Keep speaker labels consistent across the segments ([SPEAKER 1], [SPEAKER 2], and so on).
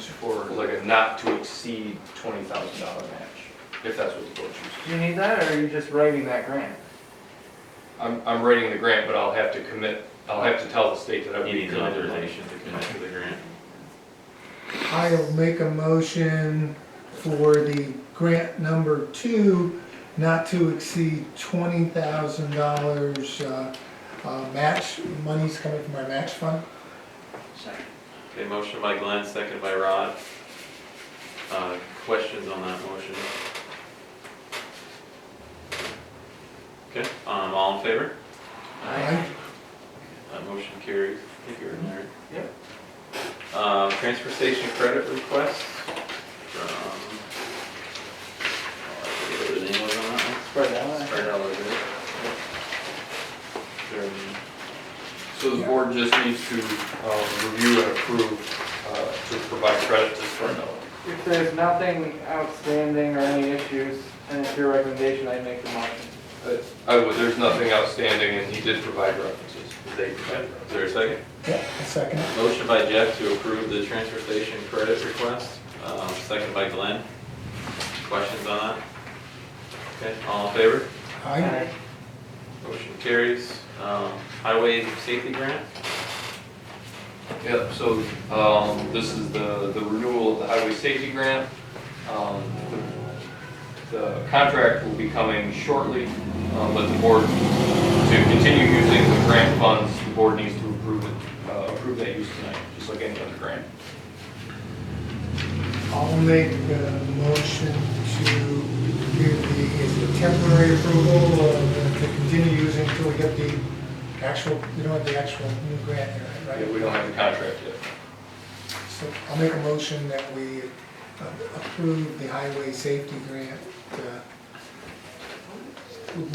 [SPEAKER 1] for like a not to exceed twenty thousand dollar match, if that's what the board chooses.
[SPEAKER 2] Do you need that, or are you just writing that grant?
[SPEAKER 1] I'm, I'm writing the grant, but I'll have to commit, I'll have to tell the state that I would
[SPEAKER 3] He
[SPEAKER 1] be
[SPEAKER 3] needs
[SPEAKER 1] committed.
[SPEAKER 3] authorization to commit to the grant.
[SPEAKER 4] I'll make a motion for the grant number two, not to exceed twenty thousand dollars, uh, uh, match, money's coming from our match fund.
[SPEAKER 3] Okay, motion by Glenn, second by Rod. Uh, Questions on that motion? Okay, um, all in favor?
[SPEAKER 4] Aye.
[SPEAKER 3] That motion carries. I think you're in there.
[SPEAKER 2] Yep.
[SPEAKER 3] Um, Transfer station credit request from, I forget what the name was on that one.
[SPEAKER 2] Spread that out.
[SPEAKER 3] Spread out a little bit. There-
[SPEAKER 1] So the board just needs to, um, review and approve, uh, to provide credit to Spartanella.
[SPEAKER 2] If there's nothing outstanding or any issues, and it's your recommendation, I make the motion.
[SPEAKER 1] Uh, I would, there's nothing outstanding, and he did provide references. They provided references.
[SPEAKER 3] Is there a second?
[SPEAKER 4] Yeah, a second.
[SPEAKER 3] Motion by Jeff to approve the transfer station credit request, um, second by Glenn. Questions on that? Okay, all in favor?
[SPEAKER 4] Aye.
[SPEAKER 3] Motion carries. Um, Highway safety grant?
[SPEAKER 1] Yep, so, um, this is the, the renewal of the highway safety grant. Um, the- The contract will be coming shortly, um, but the board, to continue using the grant funds, the board needs to approve it, uh, approve that use tonight, just like any other grant.
[SPEAKER 4] I'll make a motion to give the, is it temporary approval uh, to continue using until we get the actual, we don't have the actual new grant here, right?
[SPEAKER 1] We don't have the contract yet.
[SPEAKER 4] So I'll make a motion that we uh, approve the highway safety grant uh,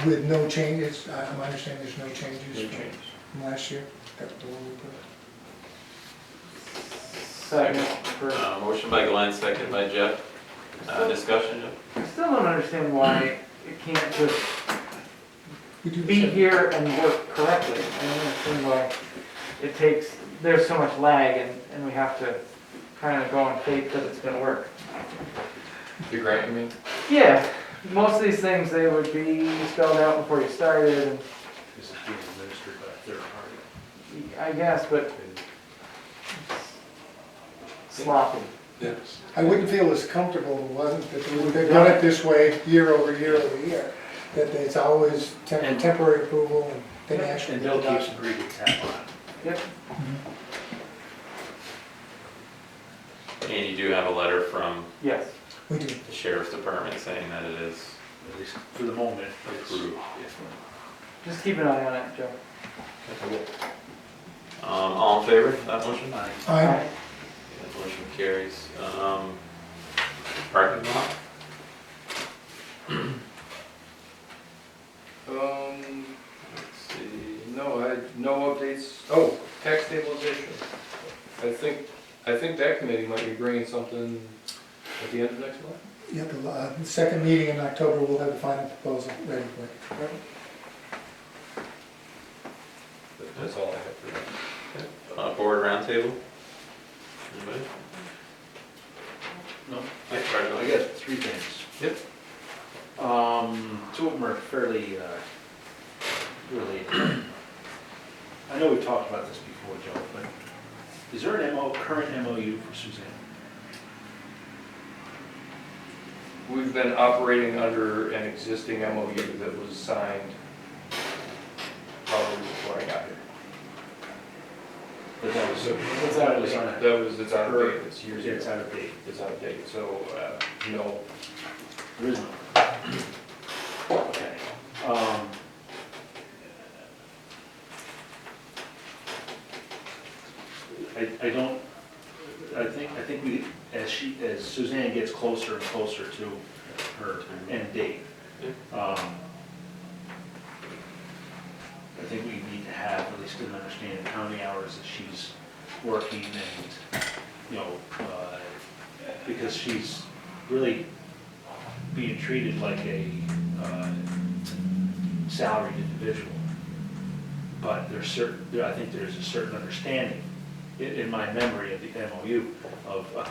[SPEAKER 4] with no changes. I- I'm understanding there's no
[SPEAKER 1] No
[SPEAKER 4] changes
[SPEAKER 1] change.
[SPEAKER 4] from last year. That's the one we put.
[SPEAKER 2] Second, for,
[SPEAKER 3] Uh, Motion by Glenn, second by Jeff. Uh, Discussion?
[SPEAKER 2] I still don't understand why it can't just
[SPEAKER 4] We do
[SPEAKER 2] be
[SPEAKER 4] check.
[SPEAKER 2] here and work correctly. I don't understand why it takes, there's so much lag, and, and we have to kind of go on faith that it's gonna work.
[SPEAKER 1] The grant, you mean?
[SPEAKER 2] Yeah, most of these things, they would be spelled out before you started, and
[SPEAKER 5] This is being administered by a third party.
[SPEAKER 2] I guess, but sloppy.
[SPEAKER 5] Yes.
[SPEAKER 4] I wouldn't feel as comfortable if it wasn't, that they- they've done it this way year over year over year. That it's always tem-
[SPEAKER 5] And-
[SPEAKER 4] temporary approval and then actually.
[SPEAKER 5] And Bill keeps agreeing to tap on it.
[SPEAKER 2] Yep,
[SPEAKER 3] And you do have a letter from
[SPEAKER 2] yes.
[SPEAKER 4] We do.
[SPEAKER 3] the sheriff's department saying that it is
[SPEAKER 5] At least for the moment, it's.
[SPEAKER 3] approved.
[SPEAKER 2] Just keep an eye on it, Joe.
[SPEAKER 3] Um, All in favor of that motion?
[SPEAKER 5] Fine.
[SPEAKER 4] Aye.
[SPEAKER 3] That motion carries. Um, Parking lot?
[SPEAKER 1] Um, let's see, no, I, no updates, oh, tax stabilization. I think, I think that committee might be bringing something at the end of next month.
[SPEAKER 4] Yeah, the uh, the second meeting in October, we'll have the final proposal ready for it.
[SPEAKER 1] But That's all I have for that.
[SPEAKER 3] Uh, board roundtable? Anybody?
[SPEAKER 5] No.
[SPEAKER 3] Hey, Fred, go
[SPEAKER 5] I
[SPEAKER 3] ahead.
[SPEAKER 5] got three things.
[SPEAKER 3] Yep.
[SPEAKER 5] Um, two of them are fairly, uh, related. I know we've talked about this before, Joe, but is there an MO, current MOU for Suzanne?
[SPEAKER 1] We've been operating under an existing MOU that was signed probably before I got here.
[SPEAKER 5] But that was,
[SPEAKER 1] So-
[SPEAKER 5] It's out of date.
[SPEAKER 1] That was, it's out of date, it's years
[SPEAKER 5] It's
[SPEAKER 1] ago,
[SPEAKER 5] out of date.
[SPEAKER 1] it's out of date, so, uh, no.
[SPEAKER 5] There is no. Okay. Um, I, I don't, I think, I think we, as she, as Suzanne gets closer and closer to her end date, um, I think we need to have at least an understanding of how many hours that she's working and, you know, uh, because she's really being treated like a uh, salaried individual. But there's certain, I think there's a certain understanding, in, in my memory of uh, the MOU, of a